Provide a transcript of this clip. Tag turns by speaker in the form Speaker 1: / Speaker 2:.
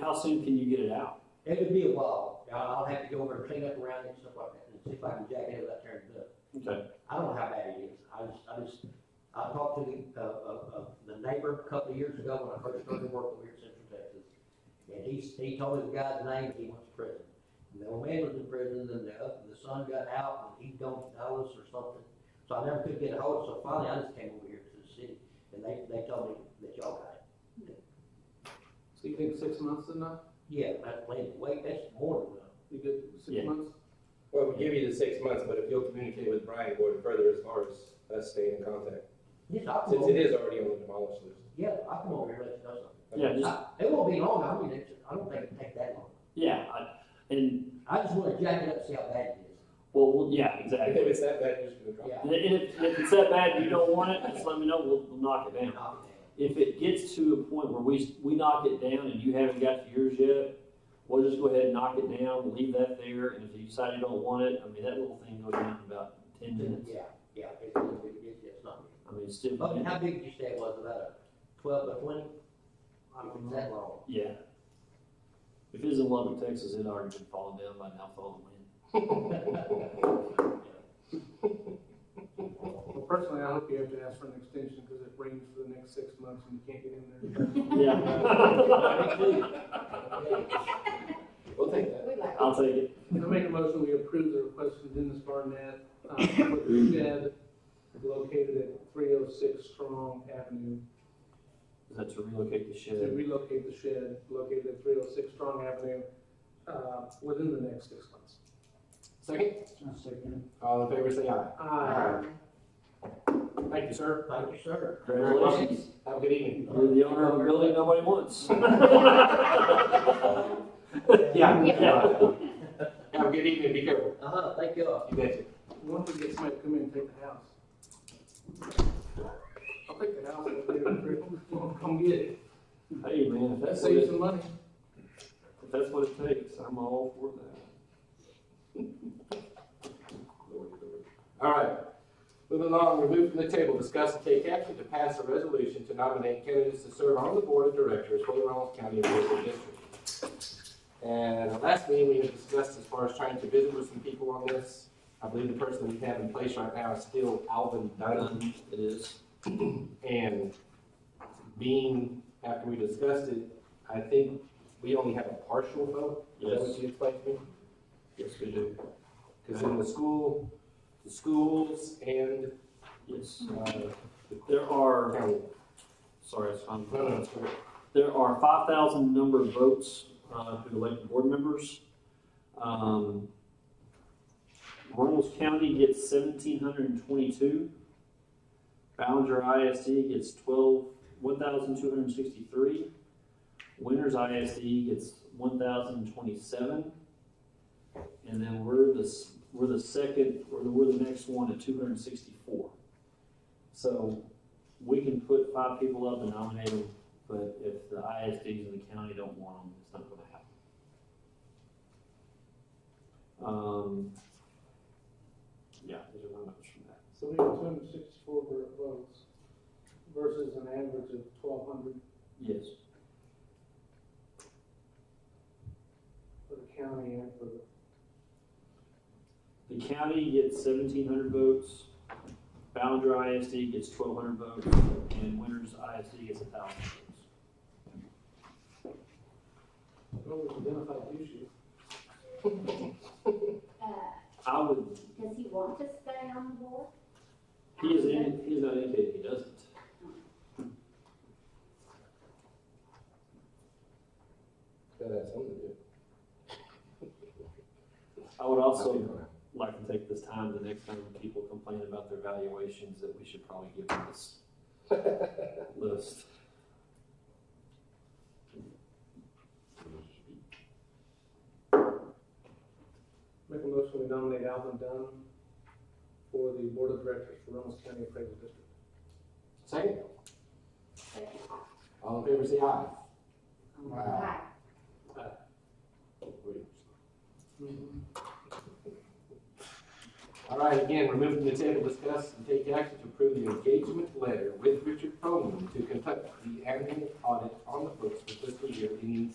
Speaker 1: how soon can you get it out?
Speaker 2: It would be a while. I'll I'll have to go over and clean up around it and stuff like that, and see if I can jack it up there and do it.
Speaker 1: Okay.
Speaker 2: I don't know how bad it is. I just, I just, I talked to the, uh, uh, uh, the neighbor a couple of years ago when I first started working over here in Central Texas. And he, he told me the guy's name, he went to prison. And the old man was in prison, and the, oth- the son got out, and he don't know us or something. So I never could get a hold of it, so finally I just came over here to the city, and they, they told me that y'all got it.
Speaker 3: So you think six months is enough?
Speaker 2: Yeah, that's plenty, wait, that's more than enough.
Speaker 3: You good, with
Speaker 1: Yeah.
Speaker 3: six months?
Speaker 4: Well, we give you the six months, but if you'll communicate with Brian Gordon further as far as us staying in contact,
Speaker 2: Yes, I'll come
Speaker 4: since
Speaker 2: over,
Speaker 4: it is already on the demolished list.
Speaker 2: yeah, I'll come over here and let you know something.
Speaker 1: Yeah, just,
Speaker 2: I- It won't be long, I mean, it's, I don't think it'll take that long.
Speaker 1: yeah, I, and,
Speaker 2: I just wanna jack it up, and see how bad it is.
Speaker 1: well, well, yeah,
Speaker 4: If
Speaker 1: exactly.
Speaker 4: it's that bad, you're just gonna drop it.
Speaker 2: Yeah.
Speaker 1: And if, if it's that bad, and you don't want it, just let me know, we'll, we'll knock it down.
Speaker 2: Knock it
Speaker 1: If it gets to a point where we, we knock it down and you haven't got yours yet, we'll just go ahead and knock it down, we'll leave that there, and if you decide you don't want it, I mean, that little thing goes down in about ten
Speaker 2: down.
Speaker 1: minutes.
Speaker 2: Yeah, yeah, it's, gonna be- it's, it's not.
Speaker 1: I mean, it's still.
Speaker 2: But how big did you say it was, about a twelve by twenty? I mean, it's that long.
Speaker 1: Yeah. If it was in Lubbock, Texas, it'd already been falling down by now, falling wind.
Speaker 3: Well, personally, I hope you have to ask for an extension because it rains for the next six months and you can't get in there.
Speaker 1: Yeah.
Speaker 4: We'll take that.
Speaker 5: We like.
Speaker 1: I'll take it.
Speaker 3: I make a motion, we approve the request from Dennis Barnett, uh, for the shed located at three oh six Strong Avenue.
Speaker 1: Is that to relocate the
Speaker 3: To
Speaker 1: shed?
Speaker 3: relocate the shed located at three oh six Strong Avenue, uh, within the next six months.
Speaker 4: Second? All in favor, say aye.
Speaker 3: Aye.
Speaker 4: Thank you, sir.
Speaker 2: Thank you, sir.
Speaker 1: Congratulations.
Speaker 4: Have a good evening.
Speaker 1: You're the owner of a building nobody wants. Yeah, yeah.
Speaker 4: Have a good evening, be careful.
Speaker 2: Uh-huh, thank you.
Speaker 4: You bet you.
Speaker 3: Once we get somebody to come in and take the house. I'll take the house, I'll leave it, I'll come get it,
Speaker 1: Hey, man, if
Speaker 3: that
Speaker 1: that's what
Speaker 3: saves
Speaker 1: it,
Speaker 3: some money.
Speaker 1: if that's what it takes, I'm all for that.
Speaker 4: Lord, Lord. All right. Moving along, remove from the table, discuss and take action to pass a resolution to nominate candidates to serve on the board of directors for the Ronald County Board District. And the last meeting, we had discussed as far as trying to visit with some people on this. I believe the person we have in place right now is still Alvin Dunn.
Speaker 1: It is.
Speaker 4: And being, after we discussed it, I think we only have a partial vote. Is that what you explained to me?
Speaker 1: Yes, we do.
Speaker 4: Because in the school, the schools and,
Speaker 1: Yes.
Speaker 4: uh,
Speaker 1: There are,
Speaker 4: county.
Speaker 1: sorry, it's fine.
Speaker 4: No, no, it's correct.
Speaker 1: There are five thousand number of votes uh, to elect board members. Um, Reynolds County gets seventeen hundred and twenty-two. Ballinger ISD gets twelve, one thousand two hundred and sixty-three. Winters ISD gets one thousand twenty-seven. And then we're the, s- we're the second, we're the, we're the next one at two hundred and sixty-four. So we can put five people up and nominate them but if the ISDs in the county don't want them, it's not gonna happen. Um, yeah, there's a run from that.
Speaker 3: So we have two hundred and sixty-four votes versus an average of twelve hundred
Speaker 1: Yes,
Speaker 3: for the county and for the.
Speaker 1: the county gets seventeen hundred votes, Ballinger ISD gets twelve hundred votes, and Winters ISD gets a thousand votes.
Speaker 3: Well, we identified the issue.
Speaker 5: Uh,
Speaker 1: I would,
Speaker 5: does he want to stay on the board?
Speaker 1: he is, in- he is not indicated, he doesn't.
Speaker 4: Gotta have something to do.
Speaker 1: I would also like to take this time, the next time people complain about their valuations, that we should probably give them this list.
Speaker 3: Make a motion, we nominate Alvin Dunn for the board of directors for Reynolds County Appraisal District.
Speaker 4: Second,
Speaker 5: But-
Speaker 4: all in favor, say aye.
Speaker 5: Right.
Speaker 4: All right, again, remove from the table, discuss and take action to approve the engagement letter with Richard Proman to conduct the annual audit on the books for fiscal year ending